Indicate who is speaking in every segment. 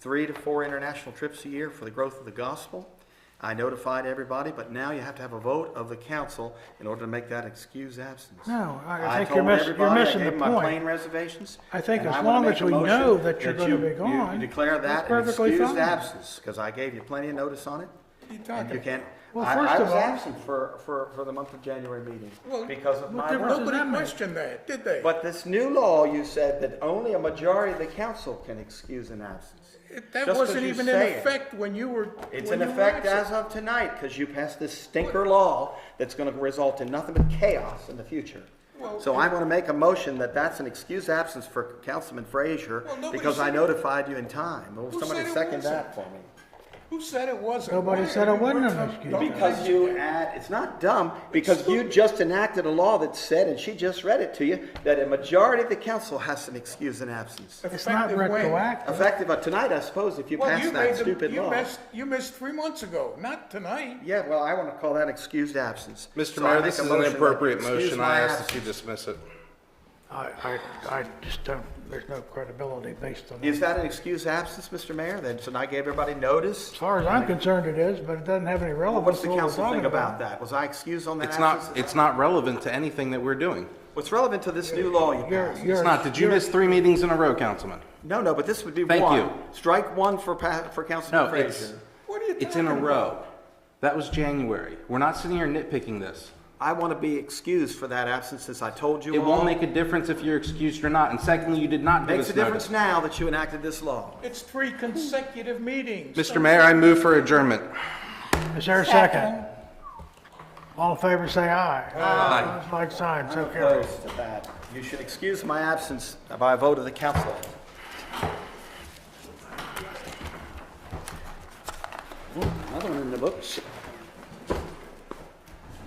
Speaker 1: three to four international trips a year for the growth of the gospel. I notified everybody, but now you have to have a vote of the council in order to make that excuse absence.
Speaker 2: No, I- I
Speaker 1: I
Speaker 2: think you're
Speaker 1: told
Speaker 2: miss- you're
Speaker 1: everybody, I
Speaker 2: missing
Speaker 1: gave
Speaker 2: the
Speaker 1: them my plane
Speaker 2: point.
Speaker 1: reservations.
Speaker 2: I think
Speaker 1: and
Speaker 2: as
Speaker 1: wanna
Speaker 2: long
Speaker 1: make
Speaker 2: as
Speaker 1: a
Speaker 2: we
Speaker 1: motion
Speaker 2: know that you're gonna
Speaker 1: you-
Speaker 2: be
Speaker 1: you-
Speaker 2: gone,
Speaker 1: You declare that
Speaker 2: that's
Speaker 1: an
Speaker 2: perfectly
Speaker 1: excused
Speaker 2: fine.
Speaker 1: absence, because I gave you plenty of notice on it.
Speaker 3: You
Speaker 1: And you
Speaker 3: talking?
Speaker 1: can't,
Speaker 2: Well,
Speaker 1: I,
Speaker 2: first
Speaker 1: I
Speaker 2: of
Speaker 1: was
Speaker 2: all-
Speaker 1: absent for, for, for the month of January meeting
Speaker 3: Well,
Speaker 1: because of my
Speaker 2: difference
Speaker 1: work.
Speaker 2: does
Speaker 3: Nobody
Speaker 2: that make?
Speaker 3: questioned that, did they?
Speaker 1: But this new law, you said that only a majority of the council can excuse an absence.
Speaker 3: It- That
Speaker 1: Just 'cause
Speaker 3: wasn't
Speaker 1: you
Speaker 3: even in
Speaker 1: say it.
Speaker 3: effect when you were.
Speaker 1: It's
Speaker 3: when
Speaker 1: in
Speaker 3: you were
Speaker 1: effect
Speaker 3: absent.
Speaker 1: as of tonight, because you passed this stinker law that's gonna result in nothing but chaos in the future.
Speaker 3: Well,
Speaker 1: So I wanna make a motion that that's an excuse absence for Councilman Frazier,
Speaker 3: Well, nobody
Speaker 1: because I
Speaker 3: said it-
Speaker 1: notified you in time. Will
Speaker 3: Who
Speaker 1: somebody
Speaker 3: said it
Speaker 1: second
Speaker 3: wasn't?
Speaker 1: that for me?
Speaker 3: Who said it wasn't?
Speaker 2: Nobody
Speaker 3: Why
Speaker 2: said it
Speaker 3: are you-
Speaker 2: wasn't
Speaker 3: what's
Speaker 2: an
Speaker 3: up?
Speaker 2: excuse.
Speaker 3: Don't-
Speaker 1: Because you add, it's not dumb, because you just enacted a law that said, and she just read it to you, that a majority of the council has an excuse an absence.
Speaker 2: It's not
Speaker 3: Effective when?
Speaker 2: retroactive.
Speaker 1: Effective uh, tonight, I suppose, if you
Speaker 3: Well,
Speaker 1: pass
Speaker 3: you
Speaker 1: that
Speaker 3: made the-
Speaker 1: stupid
Speaker 3: You
Speaker 1: law.
Speaker 3: missed, you missed three months ago, not tonight.
Speaker 1: Yeah, well, I want to call that excused absence.
Speaker 4: Mr.
Speaker 1: So I
Speaker 4: Mayor,
Speaker 1: make
Speaker 4: this
Speaker 1: a
Speaker 4: is an
Speaker 1: motion that
Speaker 4: appropriate
Speaker 1: excuse
Speaker 4: motion.
Speaker 1: my
Speaker 4: I ask that
Speaker 1: absence.
Speaker 4: you dismiss it.
Speaker 2: I, I, I just don't, there's no credibility based on that.
Speaker 1: Is that an excused absence, Mr. Mayor? Then, so I gave everybody notice?
Speaker 2: As far as I'm concerned, it is, but it doesn't have any relevance
Speaker 1: What's
Speaker 2: to
Speaker 1: the
Speaker 2: what we're
Speaker 1: council
Speaker 2: talking
Speaker 1: think about
Speaker 2: about.
Speaker 1: that? Was I excused on that
Speaker 4: It's not,
Speaker 1: absence?
Speaker 4: it's not relevant to anything that we're doing.
Speaker 1: What's relevant to this new law you
Speaker 2: You're-
Speaker 1: passed?
Speaker 2: you're-
Speaker 4: It's not, did you
Speaker 2: you're-
Speaker 4: miss three meetings in a row, Councilman?
Speaker 1: No, no, but this would be one.
Speaker 4: Thank you.
Speaker 1: Strike one for pa, for Councilman
Speaker 4: No, it's,
Speaker 1: Frazier.
Speaker 3: What are you
Speaker 4: it's in
Speaker 3: talking
Speaker 4: a
Speaker 3: about?
Speaker 4: row. That was January. We're not sitting here nitpicking this.
Speaker 1: I want to be excused for that absence since I told you
Speaker 4: It
Speaker 1: all.
Speaker 4: won't make a difference if you're excused or not, and secondly, you did not give
Speaker 1: Makes a
Speaker 4: us
Speaker 1: difference
Speaker 4: notice.
Speaker 1: now that you enacted this law.
Speaker 3: It's three consecutive meetings.
Speaker 4: Mr. Mayor, I move for adjournment.
Speaker 2: Is there a second? All in favor, say aye. Aye. Like sign, so carry.
Speaker 1: Opposed to that. You should excuse my absence by a vote of the council. Another one in the books.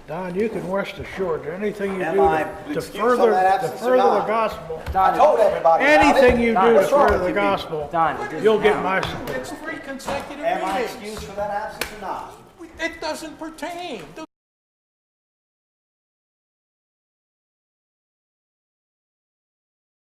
Speaker 2: Don, you can rest assured, that anything you
Speaker 1: Am
Speaker 2: do
Speaker 1: I
Speaker 2: to- to
Speaker 1: excused on
Speaker 2: further,
Speaker 1: that
Speaker 2: to
Speaker 1: absence or
Speaker 2: further the
Speaker 1: not?
Speaker 2: gospel,
Speaker 1: I told everybody about it.
Speaker 2: anything you
Speaker 1: Don,
Speaker 2: do to
Speaker 1: what's wrong
Speaker 2: further
Speaker 1: with
Speaker 2: the
Speaker 1: you people?
Speaker 2: gospel,
Speaker 5: Don, it
Speaker 2: you'll
Speaker 5: is
Speaker 2: get
Speaker 5: now.
Speaker 2: my support.
Speaker 3: It's three consecutive
Speaker 1: Am I
Speaker 3: meetings.
Speaker 1: excused for that absence or not?
Speaker 3: It doesn't pertain.